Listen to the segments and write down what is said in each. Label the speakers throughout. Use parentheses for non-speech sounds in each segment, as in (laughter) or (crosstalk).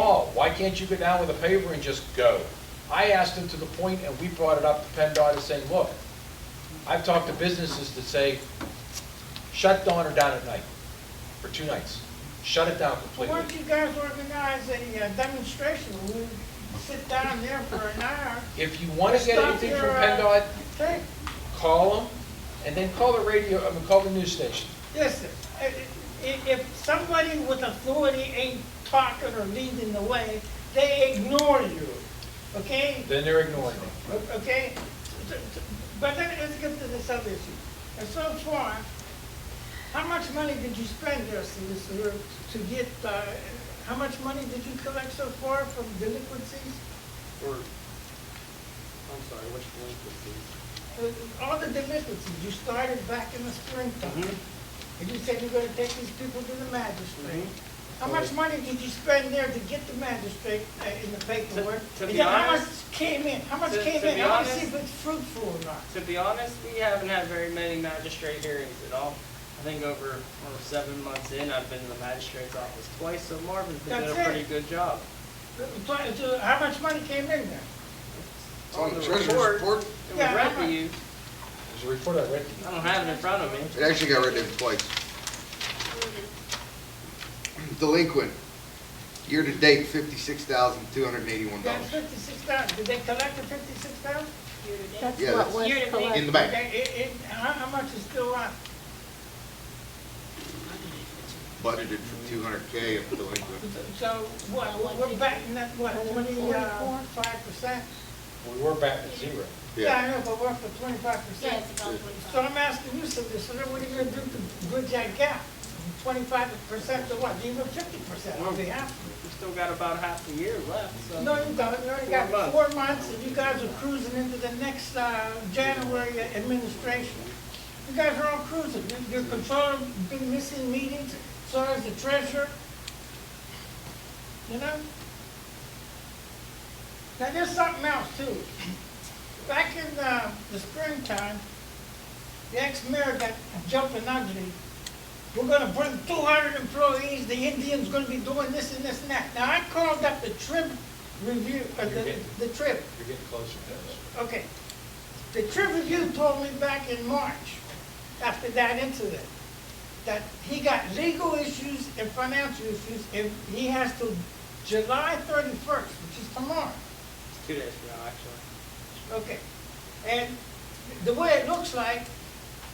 Speaker 1: fault. Why can't you go down with a paver and just go? I asked him to the point, and we brought it up to PennDOT and saying, look, I've talked to businesses that say, shut down or down at night for two nights. Shut it down completely.
Speaker 2: Why don't you guys organize a uh, demonstration? We'll sit down there for an hour.
Speaker 1: If you want to get
Speaker 2: Stop
Speaker 1: anything
Speaker 2: your,
Speaker 1: from
Speaker 2: uh,
Speaker 1: PennDOT,
Speaker 2: Take,
Speaker 1: call them, and then call the radio, I mean, call the news station.
Speaker 2: listen, i- i- if somebody with authority ain't talking or leading the way, they ignore you, okay?
Speaker 1: Then they're ignoring it.
Speaker 2: O- Okay? T- t- But then let's get to this other issue. And so far, how much money did you spend there, solicitor, to get, uh, how much money did you collect so far from delinquencies?
Speaker 3: Or, I'm sorry, which delinquencies?
Speaker 2: Uh, All the delinquencies, you started back in the springtime,
Speaker 3: Mm-hmm.
Speaker 2: and you said you're gonna take these people to the magistrate. How much money did you spend there to get the magistrate uh, in the paperwork?
Speaker 3: To- to
Speaker 2: And
Speaker 3: be
Speaker 2: then how much
Speaker 3: honest-
Speaker 2: came in, how much
Speaker 3: to-
Speaker 2: came
Speaker 3: to
Speaker 2: in,
Speaker 3: be
Speaker 2: I wanna
Speaker 3: honest-
Speaker 2: see if it's fruitful or not.
Speaker 3: To be honest, we haven't had very many magistrate hearings at all. I think over, over seven months in, I've been in the magistrate's office twice, so Marvin's been doing a
Speaker 2: That's it.
Speaker 3: pretty good job.
Speaker 2: Uh, tw- to- How much money came in there?
Speaker 4: It's on the treasurer's
Speaker 3: report,
Speaker 4: report.
Speaker 3: It was
Speaker 2: Yeah,
Speaker 3: read
Speaker 2: I'm-
Speaker 3: to you.
Speaker 1: There's a report I read to you.
Speaker 3: I don't have it in front of me.
Speaker 4: It actually got rid of it twice. Delinquent, year-to-date, fifty-six thousand, two hundred and eighty-one
Speaker 2: That's
Speaker 4: dollars.
Speaker 2: fifty-six thousand, did they collect the fifty-six thousand?
Speaker 5: That's
Speaker 4: Yeah,
Speaker 5: what was
Speaker 6: Year to date.
Speaker 4: In
Speaker 5: collected.
Speaker 4: the bank,
Speaker 2: How, how much is still on?
Speaker 4: budgeted for two hundred K of
Speaker 2: (laughs)
Speaker 4: delinquent.
Speaker 2: So, what, we're backing that, what,
Speaker 5: Forty-four?
Speaker 2: twenty-five percent?
Speaker 1: We were back to zero.
Speaker 2: Yeah, I know, but we're up to twenty-five
Speaker 6: Yeah,
Speaker 2: percent.
Speaker 6: it's about twenty-five.
Speaker 2: So I'm asking you, solicitor, what are you gonna do to bridge that gap? Twenty-five percent to what, even fifty percent, I'll be happy.
Speaker 3: We've still got about half a year left, so.
Speaker 2: No, you don't, you already
Speaker 3: Four
Speaker 2: got
Speaker 3: months.
Speaker 2: four months, and you guys are cruising into the next, uh, January administration. You guys are all cruising, You- you're controlling, been missing meetings, so is the treasurer. You know? Now, there's something else too. Back in, uh, the springtime, the ex-mayor got jumping ugly. We're gonna bring two hundred employees, the Indians gonna be doing this and this and that. Now, I called up the trip review, uh,
Speaker 1: You're
Speaker 2: the,
Speaker 1: getting-
Speaker 2: the trip,
Speaker 1: You're getting closer to this.
Speaker 2: okay. The trip review told me back in March, after that incident, that he got legal issues and financial issues, and he has to July thirty-first, which is tomorrow.
Speaker 3: It's two days from now, actually.
Speaker 2: Okay, and the way it looks like,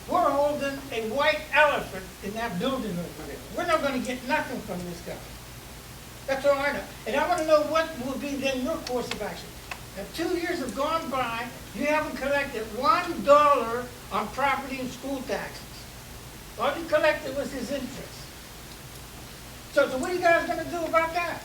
Speaker 2: we're holding a white elephant in that building over there. We're not gonna get nothing from this guy. That's all I know. And I wanna know what will be then your course of action. Now, two years have gone by, you haven't collected one dollar on property and school taxes. All you collected was his interest. So, so what are you guys gonna do about that?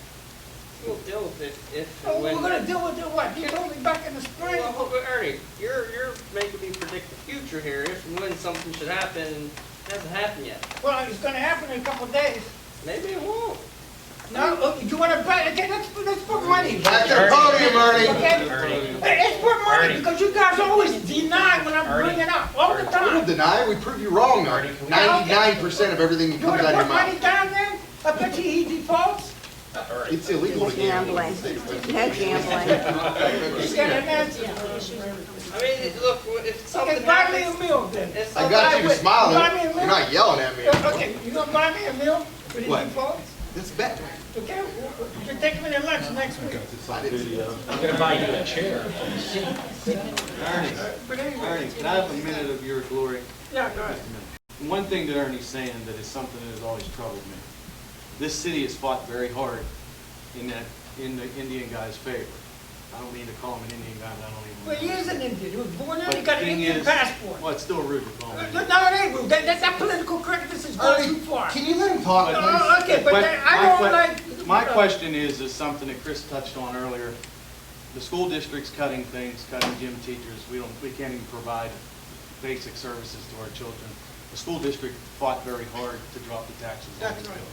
Speaker 3: We'll deal with it if. and
Speaker 2: Oh, We're
Speaker 3: when-
Speaker 2: gonna deal with the what? You told me back in the spring.
Speaker 3: Well, hold- Ernie, you're, you're making me predict the future here, if and when something should happen, and it hasn't happened yet.
Speaker 2: Well, it's gonna happen in a couple of days.
Speaker 3: Maybe it won't.
Speaker 2: No, uh, you wanna bet, okay, let's, put- let's put money.
Speaker 4: Back to the podium, Ernie.
Speaker 2: Okay?
Speaker 1: Ernie.
Speaker 2: Hey, Let's put money,
Speaker 1: Ernie.
Speaker 2: because you guys always deny when I'm
Speaker 1: Ernie.
Speaker 2: bringing up, all
Speaker 1: Ernie.
Speaker 2: the
Speaker 4: We don't
Speaker 2: time.
Speaker 4: deny, it, we prove you wrong, Ernie. Ninety-nine percent of everything that
Speaker 2: You
Speaker 4: comes
Speaker 2: wanna
Speaker 4: out of your
Speaker 2: put money
Speaker 4: mouth.
Speaker 2: down there? I bet you he defaults.
Speaker 1: Ernie.
Speaker 4: It's illegal to gamble in the state of Pennsylvania.
Speaker 5: No gambling.
Speaker 2: He's got an answer.
Speaker 3: I mean, it- look, if
Speaker 2: Okay,
Speaker 3: something
Speaker 2: buy me a
Speaker 3: happens,
Speaker 2: meal then.
Speaker 3: if
Speaker 4: (laughs) I
Speaker 3: something,
Speaker 2: Buy
Speaker 4: got you to
Speaker 2: me a
Speaker 4: smiling,
Speaker 2: meal.
Speaker 4: you're not yelling
Speaker 2: (laughs)
Speaker 4: at me.
Speaker 2: Okay, you gonna buy me a meal for the
Speaker 4: What?
Speaker 2: defaults?
Speaker 4: It's bad.
Speaker 2: Okay, you're taking me to lunch next week.
Speaker 4: I didn't,
Speaker 1: I'm gonna buy you a chair.
Speaker 7: Ernie,
Speaker 2: But anyway,
Speaker 7: Ernie, can I have a minute of your glory?
Speaker 2: yeah, go ahead.
Speaker 7: One thing that Ernie's saying that is something that has always troubled me. This city has fought very hard in that, in the Indian guy's favor. I don't mean to call him an Indian guy, but I don't even.
Speaker 2: Well, he is an Indian, he was born here,
Speaker 7: But
Speaker 2: he got an
Speaker 7: the thing
Speaker 2: Indian
Speaker 7: is-
Speaker 2: passport.
Speaker 7: Well, it's still rude to call him.
Speaker 2: No,
Speaker 7: Indian.
Speaker 2: no, it ain't rude. That, that, that political correctness is going too
Speaker 4: Ernie,
Speaker 2: far.
Speaker 4: can you let him talk,
Speaker 7: But-
Speaker 4: please?
Speaker 2: Oh, okay, but that- I
Speaker 7: my
Speaker 2: don't
Speaker 7: que-
Speaker 2: like-
Speaker 7: My question is, is something that Chris touched on earlier. The school district's cutting things, cutting gym teachers. We don't, we can't even provide basic services to our children. The school district fought very hard to drop the taxes on
Speaker 2: That's
Speaker 7: this
Speaker 2: right.
Speaker 7: bill.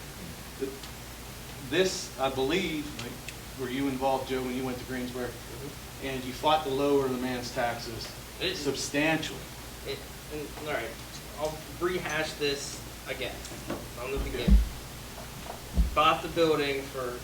Speaker 7: This, I believe, like, were you involved, Joe, when you went to Greensburg?
Speaker 2: Mm-hmm.
Speaker 7: And you fought to lower the man's taxes
Speaker 3: It-
Speaker 7: substantially.
Speaker 3: it- and- all right, I'll rehash this again, from the beginning. Bought the building for